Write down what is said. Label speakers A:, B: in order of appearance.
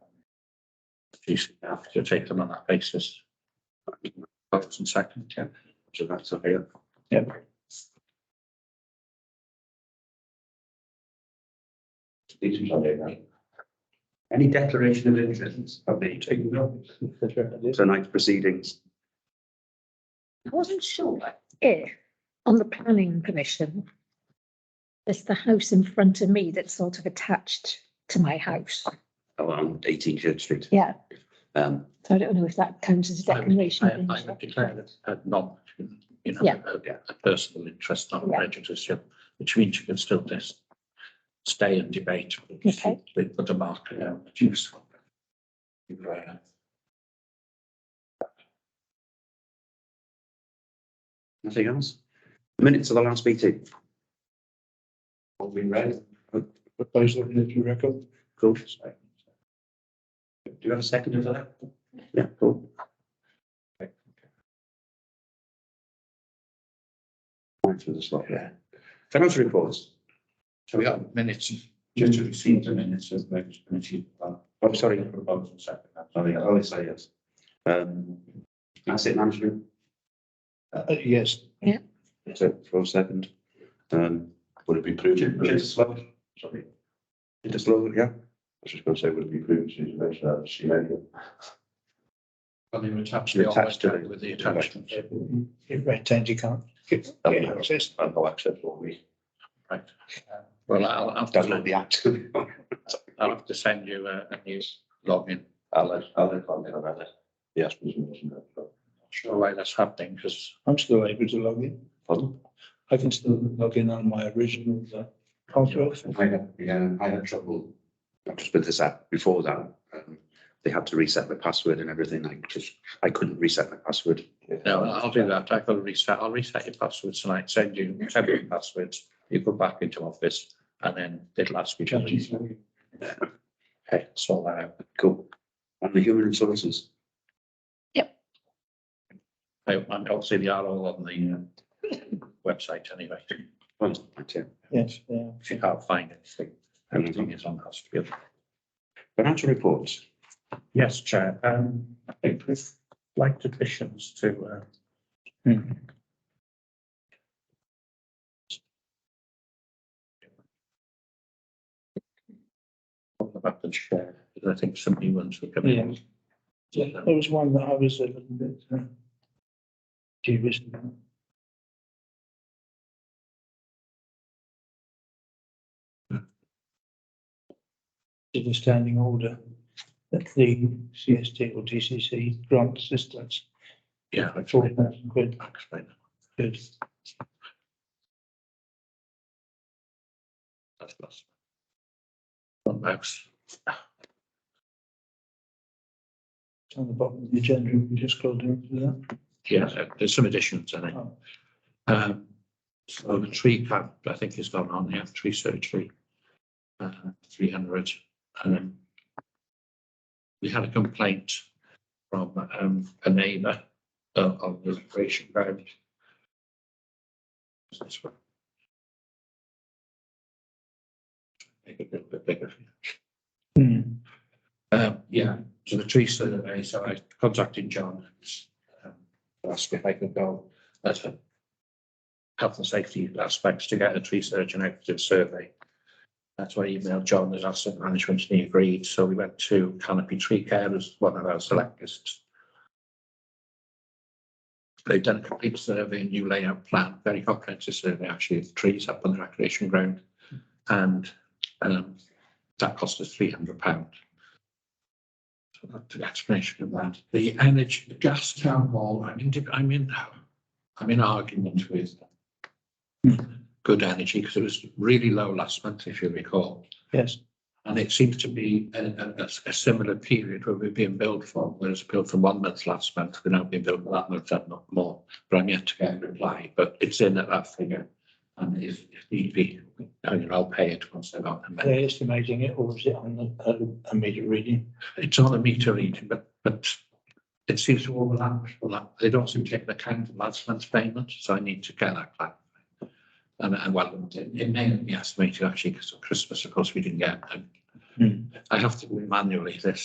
A: GC have to take them on that basis. First and second, yeah, so that's a here. Yeah.
B: Any declaration of interest have they taken up tonight's proceedings?
C: I wasn't sure if on the planning commission, there's the house in front of me that's sort of attached to my house.
B: Around Oh, eighteen Church Street.
C: Yeah,
B: Um,
C: so I don't know if that counts as a declaration. of
A: I would declare
C: interest.
A: it a non, uh, you know,
C: Yeah.
A: a, a personal interest, not a
C: Yeah.
A: prejudice, yeah, which means you can still just stay and debate. but you-
C: Okay.
A: They put a marker down, it's useful. uh, You're right.
B: nothing else? Minutes of the last meeting,
D: All been read. Put those in the record.
B: cool.
D: Do you have a second of that?
B: Yeah, cool. Right for the slot, yeah. Financial reports.
D: So we have minutes, just to receive the minutes of the committee.
B: I'm Oh, sorry.
D: Proposal second.
B: Sorry, I always say yes. Um, asset management,
D: Uh, yes.
B: so for a second. Um,
E: Would it be prudent?
D: Just slow.
E: Sorry,
B: just look, yeah,
E: I was just going to say, would it be prudent to mention that she made it?
A: Well, they're attached,
B: They're
A: they always
B: attached to
A: do
B: it.
A: with the attachments,
D: It retains, you can't. get-
E: I
D: get
E: mean, I
D: access.
E: have no access all week.
A: right? Well, I'll, I'll have
B: that's not
A: to,
B: the act.
A: I'll have to send you a, a new login.
E: Alan, Alan, I'm in about it. Yes, please, wasn't it? But-
A: Not Sure why that's happening, because
D: I'm still able to log in.
E: Pardon?
D: I can still log in on my original uh, password.
B: I had, yeah, I had trouble. Not just with this app, before that, um, they had to reset my password and everything, I just, I couldn't reset my password.
A: No, I'll do that. I will reset, I'll reset your password tonight, send you temporary passwords. You go back into office and then they'll ask you to reset. Okay, sort that out.
B: Cool. And the human resources,
A: I, and obviously they are all on the uh, website anyway.
B: well, that's it.
D: Yes, yeah.
A: If you can't find anything, everything is on us.
B: Financial reports,
A: Yes, Chair, um, I think we'd like additions to, uh.
D: Hmm.
A: What About the chair, because I think somebody wants to come
D: Yeah.
A: in.
D: Yeah, There was one that I was a little bit uh, dubious about. Did a standing order that the CST or DCC grant assistance
A: Yeah, I
D: at four
A: explained that.
D: thousand quid.
A: I explained that.
D: Good.
A: That's that's- One mouse.
D: It's on the bottom of the agenda, we just scrolled down to that.
A: Yeah, there- there's some additions, I think.
D: Oh,
A: Um, so the tree count, I think, has gone on here, tree surgery, uh, three hundred. Um, we had a complaint from, um, a neighbour uh, of the recreation ground. Is This one. Make it a little bit bigger.
D: hmm.
A: Um, yeah, so the tree survey, so I contacted John. um, Asked if I could go as a health and safety aspects to get a tree surgeon out to do a survey. That's why I emailed John as asset management and he agreed, so we went to Canopy Tree Care as one of our selectors. They've done a complete survey, new layout plan, very comprehensive survey actually of the trees up on the recreation ground. And um, that cost us three hundred pound. So that's the explanation of that. The energy, the gas town hall, I'm in, I'm in, I'm in argument with good energy because it was really low last month, if you recall.
D: Yes,
A: And it seems to be a, a- a s- a similar period where we've been billed for, whereas billed for one month last month, we're now being billed for that month and not more. But I'm yet to get a reply, but it's in at that figure. And if, if need be, I mean, I'll pay it once I've got the money.
D: they're estimating it, or is it on the, uh, immediate reading?
A: it's on a meter reading, but, but it seems to overlap, overlap. They don't seem to take account of last month's payment, so I need to get that clarified. And, and well, it it may be estimated actually, because of Christmas, of course, we didn't get them.
D: Hmm.
A: I have um, to do it manually this,